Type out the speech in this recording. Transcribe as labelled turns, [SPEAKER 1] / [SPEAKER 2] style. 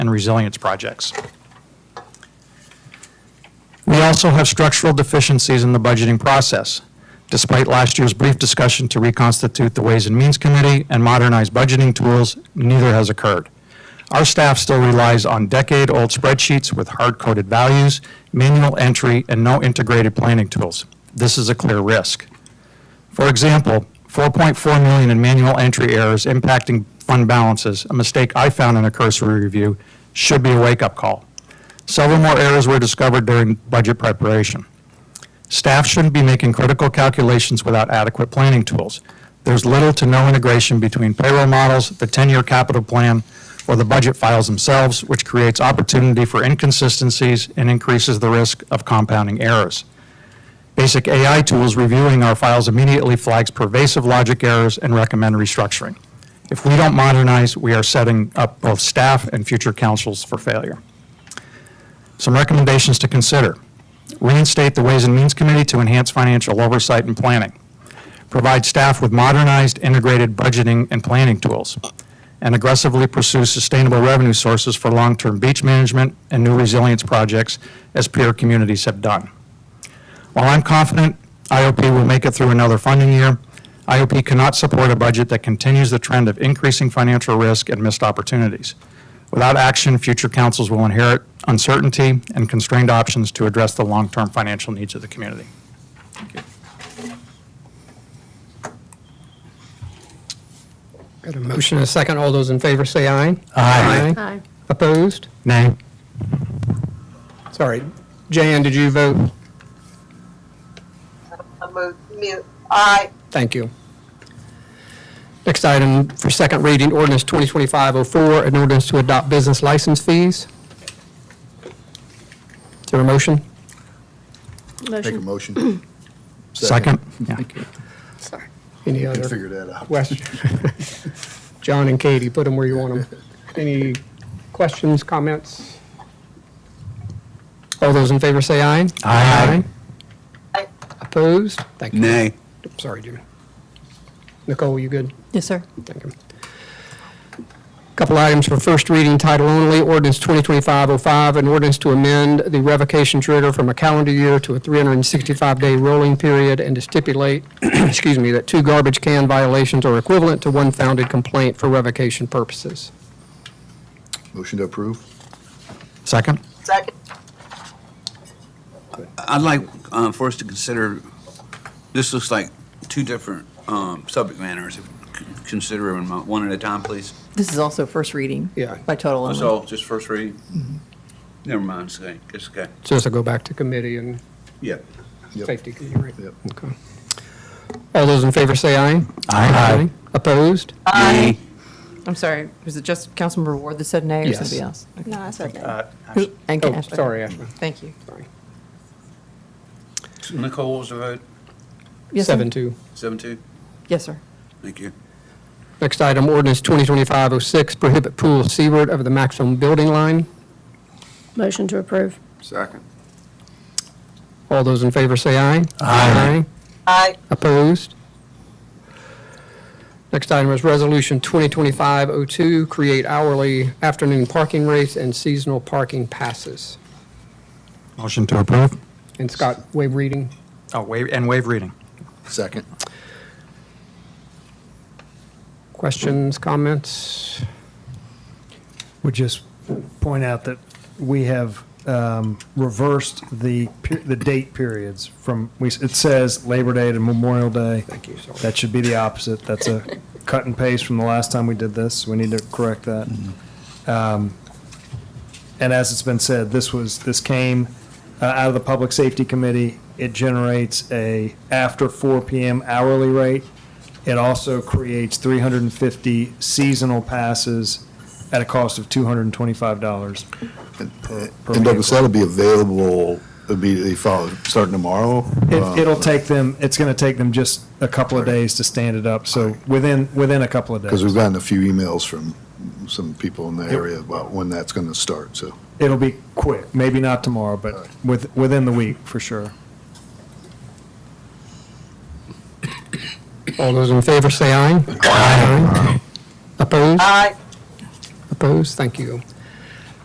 [SPEAKER 1] and resilience projects. We also have structural deficiencies in the budgeting process. Despite last year's brief discussion to reconstitute the Ways and Means Committee and modernize budgeting tools, neither has occurred. Our staff still relies on decade-old spreadsheets with hard-coded values, manual entry, and no integrated planning tools. This is a clear risk. For example, 4.4 million in manual entry errors impacting fund balances, a mistake I found in a cursory review, should be a wake-up call. Several more errors were discovered during budget preparation. Staff shouldn't be making critical calculations without adequate planning tools. There's little to no integration between payroll models, the 10-year capital plan, or the budget files themselves, which creates opportunity for inconsistencies and increases the risk of compounding errors. Basic AI tools reviewing our files immediately flags pervasive logic errors and recommend restructuring. If we don't modernize, we are setting up both staff and future councils for failure. Some recommendations to consider. Reinstate the Ways and Means Committee to enhance financial oversight and planning. Provide staff with modernized, integrated budgeting and planning tools. And aggressively pursue sustainable revenue sources for long-term beach management and new resilience projects as peer communities have done. While I'm confident IOP will make it through another funding year, IOP cannot support a budget that continues the trend of increasing financial risk and missed opportunities. Without action, future councils will inherit uncertainty and constrained options to address the long-term financial needs of the community.
[SPEAKER 2] Got a motion and a second. All those in favor say aye.
[SPEAKER 1] Aye.
[SPEAKER 3] Aye.
[SPEAKER 2] Opposed?
[SPEAKER 1] Nay.
[SPEAKER 2] Sorry. Jan, did you vote?
[SPEAKER 4] I move mute. Aye.
[SPEAKER 2] Thank you. Next item for second reading, ordinance 2025-04, an ordinance to adopt business license fees. Is there a motion?
[SPEAKER 3] Motion.
[SPEAKER 5] Make a motion.
[SPEAKER 1] Second? Yeah.
[SPEAKER 3] Sorry.
[SPEAKER 2] Any
[SPEAKER 5] Can
[SPEAKER 2] other
[SPEAKER 5] figure that out.
[SPEAKER 2] questions? John and Katie, put them where you want them. Any questions, comments? All those in favor say aye.
[SPEAKER 1] Aye.
[SPEAKER 4] Aye.
[SPEAKER 2] Opposed? Thank you.
[SPEAKER 5] Nay.
[SPEAKER 2] Sorry, Jimmy. Nicole, you good?
[SPEAKER 3] Yes, sir.
[SPEAKER 2] Thank you. Couple items for first reading, title only, ordinance 2025-05, an ordinance to amend the revocation trigger from a calendar year to a 365-day rolling period and to stipulate, excuse me, that two garbage can violations are equivalent to one founded complaint for revocation purposes.
[SPEAKER 5] Motion to approve?
[SPEAKER 1] Second?
[SPEAKER 4] Second.
[SPEAKER 6] I'd like uh, for us to consider, this looks like two different um, subject matters. C- Consider them one at a time, please.
[SPEAKER 3] This is also first reading.
[SPEAKER 2] Yeah.
[SPEAKER 3] By total
[SPEAKER 6] Let's
[SPEAKER 3] only.
[SPEAKER 6] all just first read. Never mind, it's okay. It's okay.
[SPEAKER 2] So this will go back to committee and
[SPEAKER 6] Yeah.
[SPEAKER 5] Yep.
[SPEAKER 2] safety committee, right?
[SPEAKER 5] Yep.
[SPEAKER 2] Okay. All those in favor say aye.
[SPEAKER 1] Aye.
[SPEAKER 2] Opposed?
[SPEAKER 6] Aye.
[SPEAKER 3] I'm sorry, was it just Councilmember Ward that said nay or
[SPEAKER 2] Yes.
[SPEAKER 3] somebody else?
[SPEAKER 4] No, I said that.
[SPEAKER 1] Uh,
[SPEAKER 3] Who- And
[SPEAKER 2] Oh,
[SPEAKER 3] Ashley.
[SPEAKER 2] sorry, Ashley.
[SPEAKER 3] Thank you.
[SPEAKER 2] Sorry.
[SPEAKER 6] Nicole, what was the vote?
[SPEAKER 3] Yes, sir.
[SPEAKER 2] Seven, two.
[SPEAKER 6] Seven, two?
[SPEAKER 3] Yes, sir.
[SPEAKER 6] Thank you.
[SPEAKER 2] Next item, ordinance 2025-06, prohibit pool seaward of the maximum building line.
[SPEAKER 7] Motion to approve.
[SPEAKER 6] Second.
[SPEAKER 2] All those in favor say aye.
[SPEAKER 1] Aye.
[SPEAKER 4] Aye.
[SPEAKER 2] Opposed? Next item is Resolution 2025-02, create hourly afternoon parking rates and seasonal parking passes.
[SPEAKER 1] Motion to approve?
[SPEAKER 2] And Scott, waive reading.
[SPEAKER 1] Oh, waive, and waive reading.
[SPEAKER 5] Second.
[SPEAKER 2] Questions, comments?
[SPEAKER 8] would just point out that we have um, reversed the, per- the date periods from, we s- it says Labor Day to Memorial Day. Thank you. That should be the opposite. That's a cut and paste from the last time we did this. We need to correct that. Um, And as it's been said, this was, this came uh, out of the Public Safety Committee. It generates a after 4 PM hourly rate. It also creates 350 seasonal passes at a cost of $225. per- per
[SPEAKER 5] And Douglas,
[SPEAKER 8] vehicle.
[SPEAKER 5] that'll be available immediately following, starting tomorrow? Uh,
[SPEAKER 8] It, it'll take them, it's going to take them just a couple of days to stand it up, so within, within a couple of
[SPEAKER 5] Because we've
[SPEAKER 8] days.
[SPEAKER 5] gotten a few emails from some people in the area about when that's going to start, so.
[SPEAKER 8] It'll be quick, maybe not tomorrow, but with, within the week, for sure.
[SPEAKER 2] All those in favor say aye. Aye. Opposed?
[SPEAKER 4] Aye.
[SPEAKER 2] Opposed? Thank you.